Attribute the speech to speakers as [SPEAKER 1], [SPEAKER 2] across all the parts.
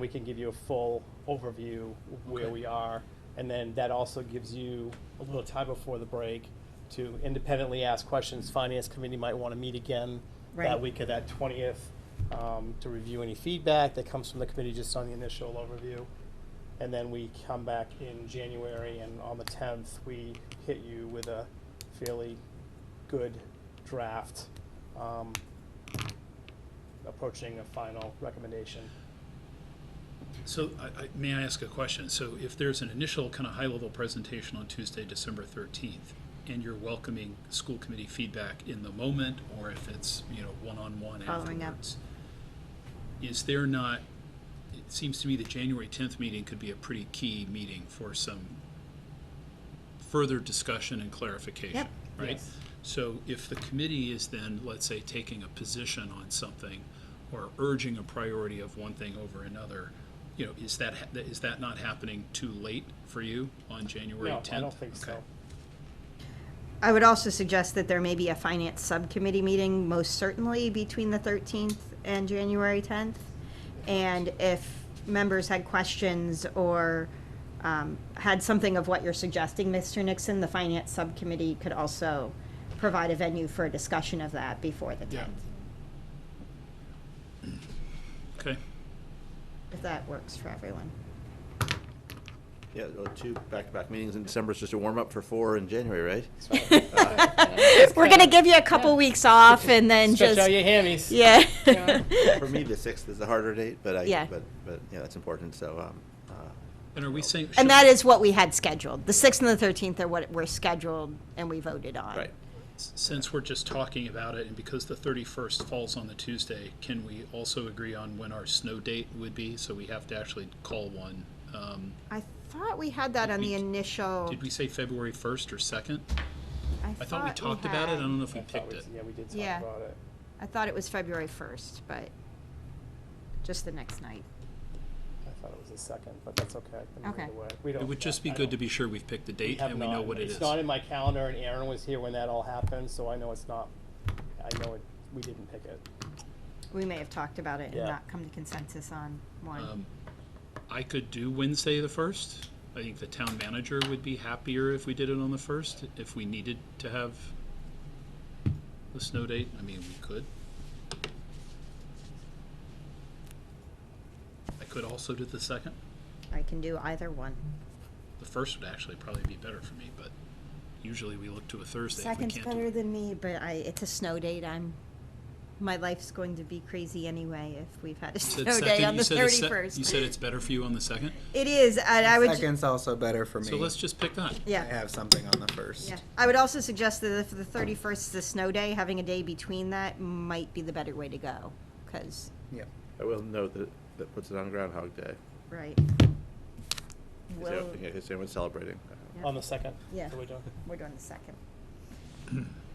[SPEAKER 1] We can give you a full overview of where we are, and then that also gives you a little time before the break to independently ask questions. Finance committee might want to meet again that
[SPEAKER 2] Right.
[SPEAKER 1] week of that twentieth, um, to review any feedback that comes from the committee just on the initial overview. And then we come back in January, and on the tenth, we hit you with a fairly good draft, um, approaching a final recommendation.
[SPEAKER 3] So, I, I, may I ask a question? So if there's an initial kind of high-level presentation on Tuesday, December thirteenth, and you're welcoming school committee feedback in the moment, or if it's, you know, one-on-one
[SPEAKER 2] Following up.
[SPEAKER 3] afterwards, is there not, it seems to me the January tenth meeting could be a pretty key meeting for some further discussion and clarification,
[SPEAKER 2] Yep.
[SPEAKER 3] right?
[SPEAKER 1] Yes.
[SPEAKER 3] So if the committee is then, let's say, taking a position on something or urging a priority of one thing over another, you know, is that, ha- is that not happening too late for you on January
[SPEAKER 1] No,
[SPEAKER 3] 10th?
[SPEAKER 1] I don't think so.
[SPEAKER 3] Okay.
[SPEAKER 2] I would also suggest that there may be a finance subcommittee meeting, most certainly between the 13th and January 10th. And if members had questions or um, had something of what you're suggesting, Mr. Nixon, the finance subcommittee could also provide a venue for a discussion of that before the
[SPEAKER 3] Yeah.
[SPEAKER 2] 10th,
[SPEAKER 3] Okay,
[SPEAKER 2] if that works for everyone.
[SPEAKER 4] Yeah, well, two back-to-back meetings in December is just a warm-up for four in January, right?
[SPEAKER 2] We're going to give you a couple weeks off and then
[SPEAKER 1] Stretch
[SPEAKER 2] just,
[SPEAKER 1] out your hammies.
[SPEAKER 2] yeah.
[SPEAKER 4] For me, the sixth is the harder date, but
[SPEAKER 2] Yeah.
[SPEAKER 4] I, but, but, you know, it's important, so, um, uh,
[SPEAKER 3] and are we saying? should-
[SPEAKER 2] And that is what we had scheduled. The 6th and the 13th are what were scheduled and we voted on.
[SPEAKER 4] right.
[SPEAKER 3] Since we're just talking about it, and because the 31st falls on the Tuesday, can we also agree on when our snow date would be? So we have to actually call one. Um,
[SPEAKER 2] I thought we had that on the
[SPEAKER 3] we-
[SPEAKER 2] initial.
[SPEAKER 3] Did we say February 1st or 2nd? I thought
[SPEAKER 2] Uh,
[SPEAKER 3] we talked about it, I
[SPEAKER 2] had-
[SPEAKER 3] don't know if
[SPEAKER 1] I
[SPEAKER 3] we
[SPEAKER 1] thought
[SPEAKER 3] picked
[SPEAKER 1] we-
[SPEAKER 3] it.
[SPEAKER 1] Yeah, we did
[SPEAKER 2] Yeah.
[SPEAKER 1] talk about it.
[SPEAKER 2] I thought it was February 1st, but just the next night.
[SPEAKER 1] I thought it was the second, but that's okay. I mean,
[SPEAKER 2] Okay.
[SPEAKER 1] either way, We don't.
[SPEAKER 3] It would just be
[SPEAKER 1] I
[SPEAKER 3] good to
[SPEAKER 1] don't-
[SPEAKER 3] be sure we've picked the
[SPEAKER 1] we
[SPEAKER 3] date
[SPEAKER 1] have
[SPEAKER 3] and we know
[SPEAKER 1] not-
[SPEAKER 3] what it is.
[SPEAKER 1] It's not in my calendar, and Aaron was here when that all happened, so I know it's not, I know it, we didn't pick it.
[SPEAKER 2] We may have talked about it
[SPEAKER 1] Yeah.
[SPEAKER 2] and not come to consensus on one.
[SPEAKER 3] Um, I could do Wednesday the first. I think the town manager would be happier if we did it on the first, if we needed to have the snow date. I mean, we could. I could also do the second.
[SPEAKER 2] I can do either one.
[SPEAKER 3] The first would actually probably be better for me, but usually we look to a Thursday if we
[SPEAKER 2] Second's
[SPEAKER 3] can't do
[SPEAKER 2] better
[SPEAKER 3] it.
[SPEAKER 2] than me, but I, it's a snow date. I'm, my life's going to be crazy anyway if we've had a
[SPEAKER 3] You said
[SPEAKER 2] snow day
[SPEAKER 3] second-
[SPEAKER 2] on Oh,
[SPEAKER 3] you
[SPEAKER 2] the
[SPEAKER 3] said it's sec- You
[SPEAKER 2] 31st.
[SPEAKER 3] said it's better for you on the second?
[SPEAKER 2] It is, and I would, ju-
[SPEAKER 5] Second's also better for me.
[SPEAKER 3] So let's just pick that.
[SPEAKER 5] I
[SPEAKER 2] yeah,
[SPEAKER 5] have something on the first.
[SPEAKER 2] yeah. I would also suggest that if the 31st is a snow day, having a day between that might be the better way to go, because,
[SPEAKER 5] Yeah.
[SPEAKER 4] I will note that, that puts it on Groundhog Day.
[SPEAKER 2] right.
[SPEAKER 4] 'cause
[SPEAKER 2] Will-
[SPEAKER 4] everyone- yeah, 'cause everyone's celebrating.
[SPEAKER 2] Yeah.
[SPEAKER 1] On the second?
[SPEAKER 2] Yeah.
[SPEAKER 1] So we don't-
[SPEAKER 2] We're doing the second.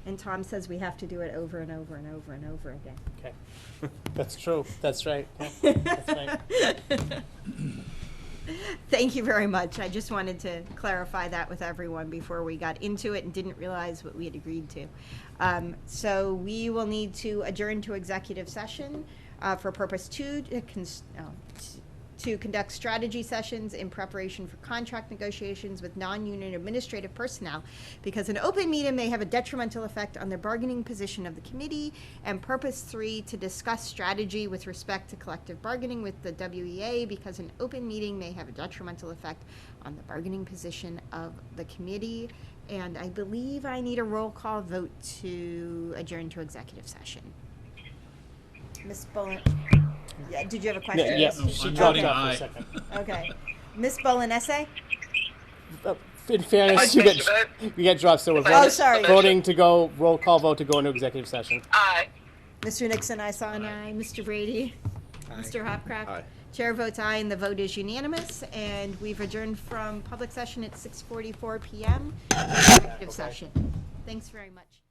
[SPEAKER 2] And Tom says we have to do it over and over and over and over again.
[SPEAKER 1] Okay. That's true, that's right. Yeah, that's right.
[SPEAKER 2] Thank you very much. I just wanted to clarify that with everyone before we got into it and didn't realize what we had agreed to. Um, so we will need to adjourn to executive session uh, for purpose two, to, cons- oh, t- to conduct strategy sessions in preparation for contract negotiations with non-union administrative personnel because an open meeting may have a detrimental effect on the bargaining position of the committee and purpose three to discuss strategy with respect to collective bargaining with the WEA because an open meeting may have a detrimental effect on the bargaining position of the committee and I believe I need a roll call vote to adjourn to executive session. Ms. Bullen, yeah, did you have a question?
[SPEAKER 1] Yeah, yeah,
[SPEAKER 3] No,
[SPEAKER 1] she
[SPEAKER 3] I'm
[SPEAKER 1] dropped
[SPEAKER 3] voting
[SPEAKER 1] out for a
[SPEAKER 3] aye.
[SPEAKER 1] second.
[SPEAKER 2] Okay. Miss Bolin essay?
[SPEAKER 1] Uh, In fairness, you
[SPEAKER 6] Vice
[SPEAKER 1] get, you get dropped, so we're
[SPEAKER 6] Oh,
[SPEAKER 1] voting-
[SPEAKER 2] sorry.
[SPEAKER 1] voting to go, roll call vote to go into executive session.
[SPEAKER 6] Aye.
[SPEAKER 2] Mr. Nixon, I saw an aye. Mr. Brady?
[SPEAKER 5] Aye.
[SPEAKER 2] Mr. Hopcraft?
[SPEAKER 4] Aye.
[SPEAKER 2] Chair votes aye, and the vote is unanimous, and we've adjourned from public session at 6:44 PM. Executive session. Thanks very much.